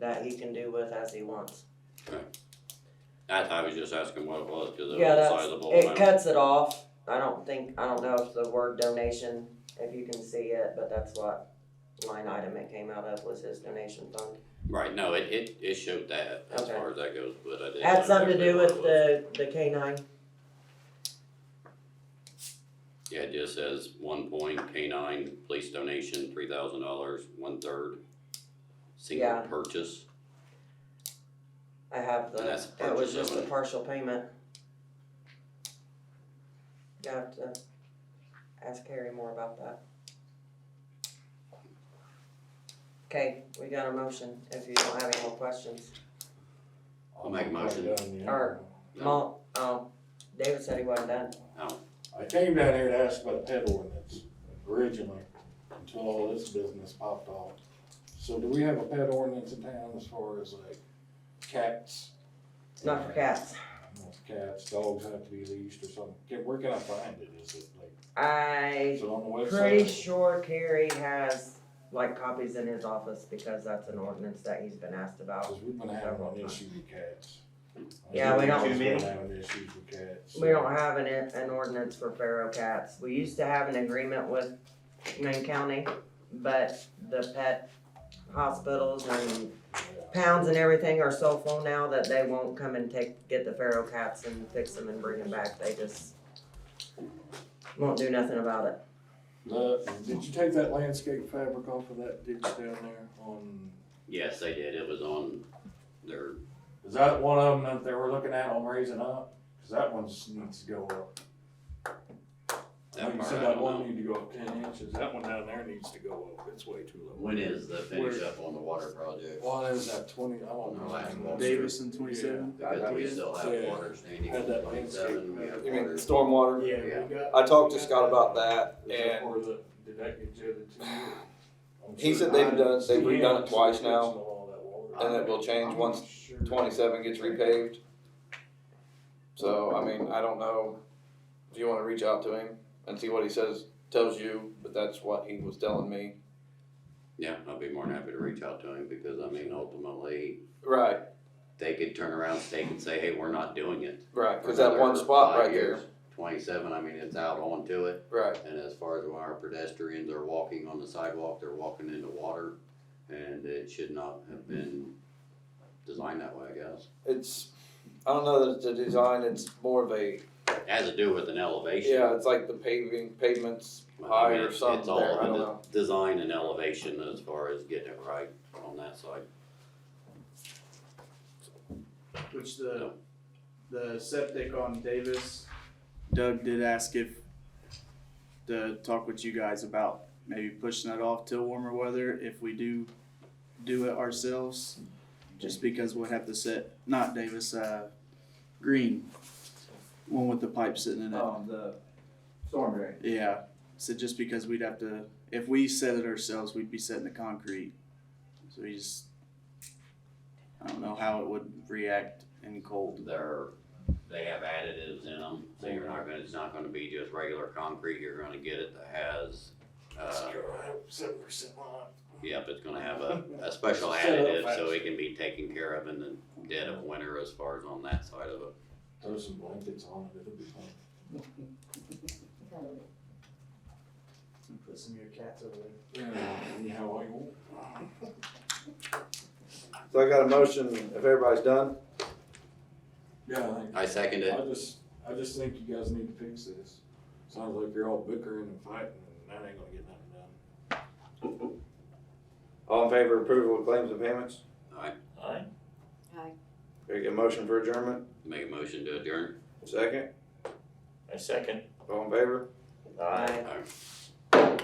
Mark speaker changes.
Speaker 1: that he can do with as he wants.
Speaker 2: I, I was just asking what it was, cause it
Speaker 1: Yeah,
Speaker 2: was a
Speaker 1: that's,
Speaker 2: sizable
Speaker 1: it
Speaker 2: amount.
Speaker 1: cuts it off. I don't think, I don't know if the word donation, if you can see it, but that's what line item it came out of was his donation fund.
Speaker 2: Right, no, it, it, it showed that, as
Speaker 1: Okay.
Speaker 2: far as that goes, but I didn't.
Speaker 1: Had
Speaker 2: know
Speaker 1: something to
Speaker 2: exactly
Speaker 1: do
Speaker 2: what
Speaker 1: with
Speaker 2: it was.
Speaker 1: the, the K nine?
Speaker 2: Yeah, it just says one point K nine, police donation, three thousand dollars, one third. Single
Speaker 1: Yeah.
Speaker 2: purchase,
Speaker 1: I have the,
Speaker 2: And that's
Speaker 1: that was
Speaker 2: purchase
Speaker 1: just a
Speaker 2: only.
Speaker 1: partial payment. You have to ask Carrie more about that. Okay, we got a motion, if you don't have any more questions.
Speaker 2: I'll make a motion.
Speaker 1: Or-
Speaker 2: No.
Speaker 1: Mo, um, David said he wasn't done.
Speaker 3: I came down here to ask about that ordinance originally, until all this business popped off. So do we have a pet ordinance in town as far as like cats?
Speaker 1: It's not for cats.
Speaker 3: Cats, dogs have to be leashed or something. Can- Where can I find it? Is it like,
Speaker 1: I
Speaker 3: is it on the website?
Speaker 1: pretty sure Carrie has like copies in his office because that's an ordinance that he's been asked about.
Speaker 3: Cause we've been having an issue with cats.
Speaker 1: Yeah, we don't-
Speaker 3: We've been having issues with cats.
Speaker 1: We don't have an, an ordinance for feral cats. We used to have an agreement with Maine County, but the pet hospitals and
Speaker 3: Yeah.
Speaker 1: pounds and everything are so full now that they won't come and take, get the feral cats and fix them and bring them back. They just won't do nothing about it.
Speaker 3: The, did you take that landscape fabric off of that ditch down there on,
Speaker 2: Yes, they did, it was on their,
Speaker 3: is that one of them that they were looking at on raising up? Cause that one just needs to go up.
Speaker 2: That
Speaker 3: Like you
Speaker 2: part
Speaker 3: said,
Speaker 2: I
Speaker 3: that
Speaker 2: don't
Speaker 3: one
Speaker 2: know.
Speaker 3: need to go up ten inches. That one down there needs to go up. It's way too low.
Speaker 2: when is the finish
Speaker 3: Where-
Speaker 2: up on the water project?
Speaker 3: Well, it was at twenty, I don't know.
Speaker 2: Last one.
Speaker 4: Davis and twenty-seven.
Speaker 2: Because we still have
Speaker 3: Yeah.
Speaker 2: water standing
Speaker 3: Had
Speaker 2: on
Speaker 3: that
Speaker 2: twenty-seven, we have
Speaker 5: You mean
Speaker 2: water.
Speaker 5: stormwater?
Speaker 2: Yeah.
Speaker 5: I talked to Scott about that,
Speaker 3: Is that
Speaker 5: and
Speaker 3: where the- Did that get jetted to you? I'm
Speaker 5: He
Speaker 3: sure
Speaker 5: said they've
Speaker 3: not.
Speaker 5: done it- they've
Speaker 3: Yeah,
Speaker 5: redone it
Speaker 3: it's
Speaker 5: twice
Speaker 3: fixing
Speaker 5: now,
Speaker 3: all that water.
Speaker 5: and it will change once twenty-seven gets repaved. So, I mean, I don't know if you wanna reach out to him and see what he says, tells you, but that's what he was telling me.
Speaker 2: Yeah, I'd be more than happy to reach out to him, because I mean, ultimately,
Speaker 5: Right,
Speaker 2: they could turn around, stake and say, hey, we're not doing it.
Speaker 5: right,
Speaker 2: for
Speaker 5: cause that one
Speaker 2: another
Speaker 5: spot
Speaker 2: five
Speaker 5: right there,
Speaker 2: years. Twenty-seven, I mean, it's out onto it,
Speaker 5: right,
Speaker 2: and as far as our pedestrians are walking on the sidewalk, they're walking into water, and it should not have been designed that way, I guess.
Speaker 5: it's, I don't know that it's a design, it's more of a,
Speaker 2: It Has to do with an elevation.
Speaker 5: yeah, it's like the paving, pavements
Speaker 2: Well, I
Speaker 5: high
Speaker 2: mean,
Speaker 5: or
Speaker 2: it's- It's
Speaker 5: something there,
Speaker 2: all
Speaker 5: I don't
Speaker 2: in
Speaker 5: know.
Speaker 2: the design and elevation as far as getting it right on that side.
Speaker 4: Which the, the septic on Davis, Doug did ask if, to talk with you guys about maybe pushing that off till warmer weather if we do do it ourselves. Just because we'll have to set, not Davis, uh, Green, one with the pipe sitting in it.
Speaker 6: Um, the storm drain.
Speaker 4: Yeah. So just because we'd have to, if we set it ourselves, we'd be setting the concrete. So we just, I don't know how it would react in cold.
Speaker 2: They're, they have additives in them, so you're not gonna, it's not gonna be just regular concrete, you're gonna get it that has, uh,
Speaker 3: Seven percent line.
Speaker 2: Yep, it's gonna have a, a special
Speaker 3: Set up
Speaker 2: additive, so
Speaker 3: faster.
Speaker 2: it can be taken care of in the dead of winter as far as on that side of it.
Speaker 3: Throw some blankets on it, it'll be fine.
Speaker 6: Put some of your cats over there.
Speaker 3: Yeah, how you want.
Speaker 5: So I got a motion, if everybody's done,
Speaker 3: Yeah, I think
Speaker 2: I second it.
Speaker 3: I just, I just think you guys need to fix this. Sounds like you're all bickering and fighting, and that ain't gonna get nothing done.
Speaker 5: all in favor of approval of claims and payments?
Speaker 2: Aye.
Speaker 3: Aye.
Speaker 7: Aye.
Speaker 5: Very good, motion for adjournment,
Speaker 2: Make a motion to adjourn.
Speaker 5: second,
Speaker 8: A second.
Speaker 5: all in favor?
Speaker 1: I-
Speaker 2: Aye.